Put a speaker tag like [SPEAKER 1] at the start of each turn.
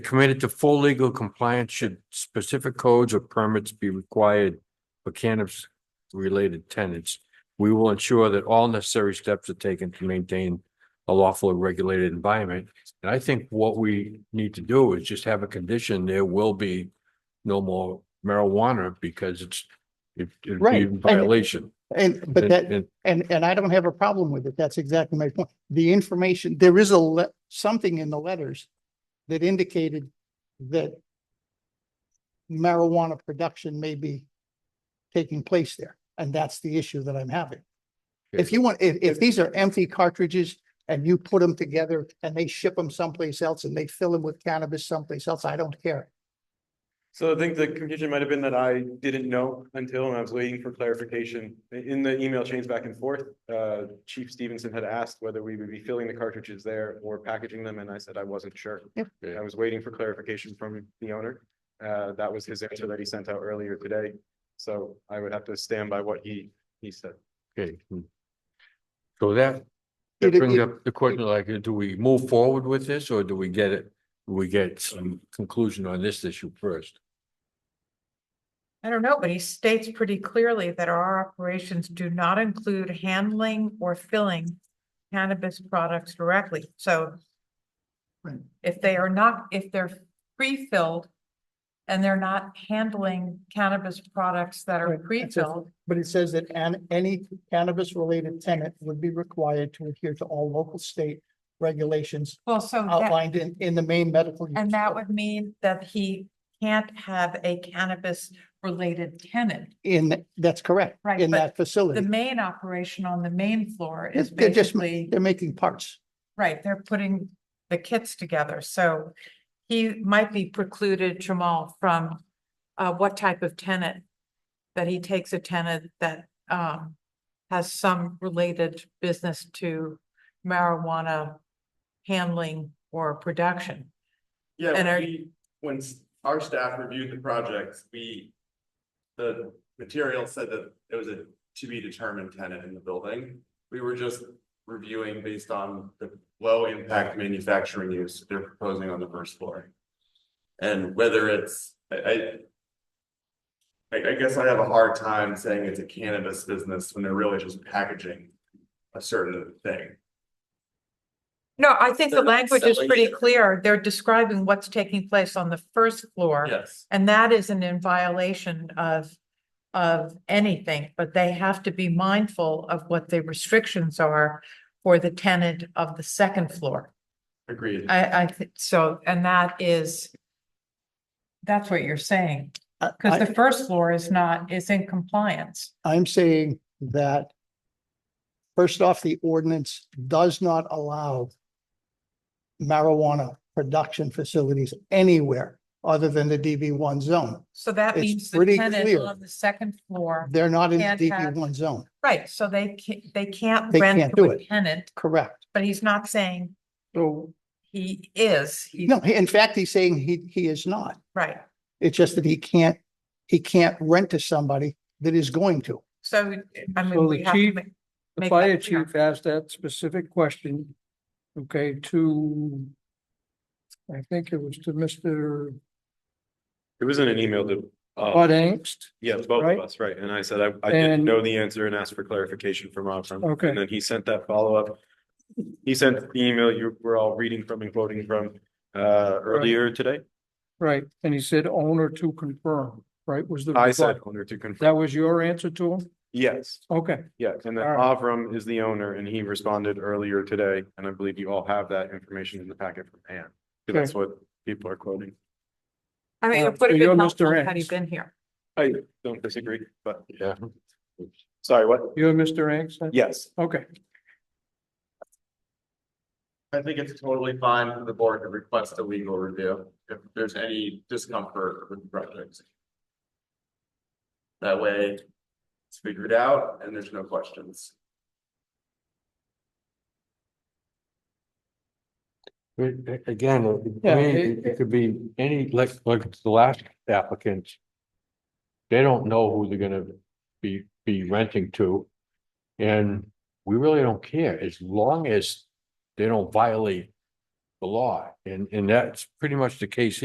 [SPEAKER 1] Committed to full legal compliance should specific codes or permits be required for cannabis related tenants. We will ensure that all necessary steps are taken to maintain a lawful and regulated environment. And I think what we need to do is just have a condition, there will be no more marijuana because it's it it'd be
[SPEAKER 2] Right,
[SPEAKER 1] in
[SPEAKER 2] and-
[SPEAKER 1] violation.
[SPEAKER 2] And, but that,
[SPEAKER 1] And- and-
[SPEAKER 2] And, and I don't have a problem with it. That's exactly my point. The information, there is a, le- something in the letters that indicated that marijuana production may be taking place there. And that's the issue that I'm having. If
[SPEAKER 1] Okay.
[SPEAKER 2] you want, if, if these are empty cartridges and you put them together and they ship them someplace else and they fill them with cannabis someplace else, I don't care.
[SPEAKER 3] So I think the confusion might have been that I didn't know until and I was waiting for clarification. In the email chains back and forth, uh, Chief Stevenson had asked whether we would be filling the cartridges there or packaging them, and I said I wasn't sure.
[SPEAKER 2] Yep.
[SPEAKER 1] Yeah.
[SPEAKER 3] I was waiting for clarification from the owner. Uh, That was his answer that he sent out earlier today. So I would have to stand by what he, he said.
[SPEAKER 1] Okay. hmm. So that, that
[SPEAKER 2] It- it-
[SPEAKER 1] brings up the question, like, do we move forward with this or do we get it? do We get some conclusion on this issue first.
[SPEAKER 4] I don't know, but he states pretty clearly that our operations do not include handling or filling cannabis products directly, so.
[SPEAKER 2] Right.
[SPEAKER 4] If they are not, if they're pre-filled and they're not handling cannabis products that are
[SPEAKER 2] Right, that's it.
[SPEAKER 4] pre-filled,
[SPEAKER 2] But it says that an, any cannabis related tenant would be required to adhere to all local state regulations
[SPEAKER 4] well, so that,
[SPEAKER 2] outlined in, in the main medical. use
[SPEAKER 4] and that
[SPEAKER 2] code.
[SPEAKER 4] would mean that he can't have a cannabis-related tenant.
[SPEAKER 2] In, th- that's correct.
[SPEAKER 4] Right,
[SPEAKER 2] In
[SPEAKER 4] but
[SPEAKER 2] that
[SPEAKER 4] The
[SPEAKER 2] facility.
[SPEAKER 4] main operation on the main floor is
[SPEAKER 2] They're just,
[SPEAKER 4] basically.
[SPEAKER 2] they're making parts.
[SPEAKER 4] Right, they're putting the kits together, so he might be precluded, Jamal, from uh what type of tenant. That he takes a tenant that um has some related business to marijuana handling or production.
[SPEAKER 5] Yeah,
[SPEAKER 4] And
[SPEAKER 5] when
[SPEAKER 4] are-
[SPEAKER 5] we, when s- our staff reviewed the projects, we, the material said that it was a to be determined tenant in the building. We were just reviewing based on the low impact manufacturing use they're proposing on the first floor. And whether it's, I, I. I, I guess I have a hard time saying it's a cannabis business when they're really just packaging a certain thing.
[SPEAKER 4] No, I think the
[SPEAKER 5] They're not
[SPEAKER 4] language is
[SPEAKER 5] selling
[SPEAKER 4] pretty
[SPEAKER 5] it.
[SPEAKER 4] clear. They're describing what's taking place on the first floor.
[SPEAKER 5] Yes.
[SPEAKER 4] And that isn't in violation of, of anything, but they have to be mindful of what the restrictions are for the tenant of the second floor.
[SPEAKER 5] Agreed.
[SPEAKER 4] I, I, thi- so, and that is, that's what you're saying,
[SPEAKER 2] I-
[SPEAKER 4] because
[SPEAKER 2] I-
[SPEAKER 4] the first floor is not, is in compliance.
[SPEAKER 2] I'm saying that first off, the ordinance does not allow marijuana production facilities anywhere other than the DB one zone.
[SPEAKER 4] So that
[SPEAKER 2] It's
[SPEAKER 4] means the
[SPEAKER 2] pretty
[SPEAKER 4] tenant
[SPEAKER 2] clear.
[SPEAKER 4] on the second floor,
[SPEAKER 2] They're not in
[SPEAKER 4] Can't
[SPEAKER 2] the DB
[SPEAKER 4] have-
[SPEAKER 2] one zone,
[SPEAKER 4] right, so they can't, they can't
[SPEAKER 2] They
[SPEAKER 4] rent
[SPEAKER 2] can't
[SPEAKER 4] to
[SPEAKER 2] do
[SPEAKER 4] a
[SPEAKER 2] it.
[SPEAKER 4] tenant,
[SPEAKER 2] correct?
[SPEAKER 4] but he's not saying
[SPEAKER 2] So,
[SPEAKER 4] he is, he's,
[SPEAKER 2] no, he- in fact, he's saying he, he is not.
[SPEAKER 4] right.
[SPEAKER 2] It's just that he can't, he can't rent to somebody that is going to.
[SPEAKER 4] So, I mean,
[SPEAKER 6] So
[SPEAKER 4] we
[SPEAKER 6] the
[SPEAKER 4] have to
[SPEAKER 6] chief-
[SPEAKER 4] make.
[SPEAKER 6] The
[SPEAKER 4] make that
[SPEAKER 6] fire
[SPEAKER 4] clear.
[SPEAKER 6] chief asked that specific question, okay, to, I think it was to Mr.
[SPEAKER 3] It was in an email to, uh,
[SPEAKER 6] Bud Angst.
[SPEAKER 3] yeah, both
[SPEAKER 6] right?
[SPEAKER 3] of us, right? And I said I, I didn't
[SPEAKER 6] And-
[SPEAKER 3] know the answer and asked for clarification from Avram.
[SPEAKER 6] Okay.
[SPEAKER 3] And then he sent that follow-up. He sent the email you were all reading from and quoting from, uh, earlier today.
[SPEAKER 6] Right, and he said owner to confirm, right, was the.
[SPEAKER 3] I said
[SPEAKER 6] reply.
[SPEAKER 3] owner to confirm.
[SPEAKER 6] That was your answer to him?
[SPEAKER 3] Yes,
[SPEAKER 6] Okay,
[SPEAKER 3] yes. And then
[SPEAKER 6] All right.
[SPEAKER 3] Avram is the owner and he responded earlier today. And I believe you all have that information in the packet from Ann. 'cause that's what people are quoting.
[SPEAKER 4] I mean,
[SPEAKER 6] Uh,
[SPEAKER 4] it would
[SPEAKER 6] so
[SPEAKER 4] have
[SPEAKER 6] you're
[SPEAKER 4] been helpful
[SPEAKER 6] Mr.
[SPEAKER 4] had he
[SPEAKER 6] X.
[SPEAKER 4] been here.
[SPEAKER 3] I don't disagree, but
[SPEAKER 1] Yeah.
[SPEAKER 3] sorry, what?
[SPEAKER 6] you're Mr. Angst? then?
[SPEAKER 3] Yes.
[SPEAKER 6] Okay,
[SPEAKER 5] I think it's totally fine for the board to request a legal review if there's any discomfort with the project. That way, it's figured out and there's no questions.
[SPEAKER 1] But a- again, it- it-
[SPEAKER 6] Yeah,
[SPEAKER 1] I mean,
[SPEAKER 6] it-
[SPEAKER 1] it- it could be any, like, like the last applicant. They don't know who they're gonna be, be renting to. And we really don't care as long as they don't violate the law. And, and that's pretty much the case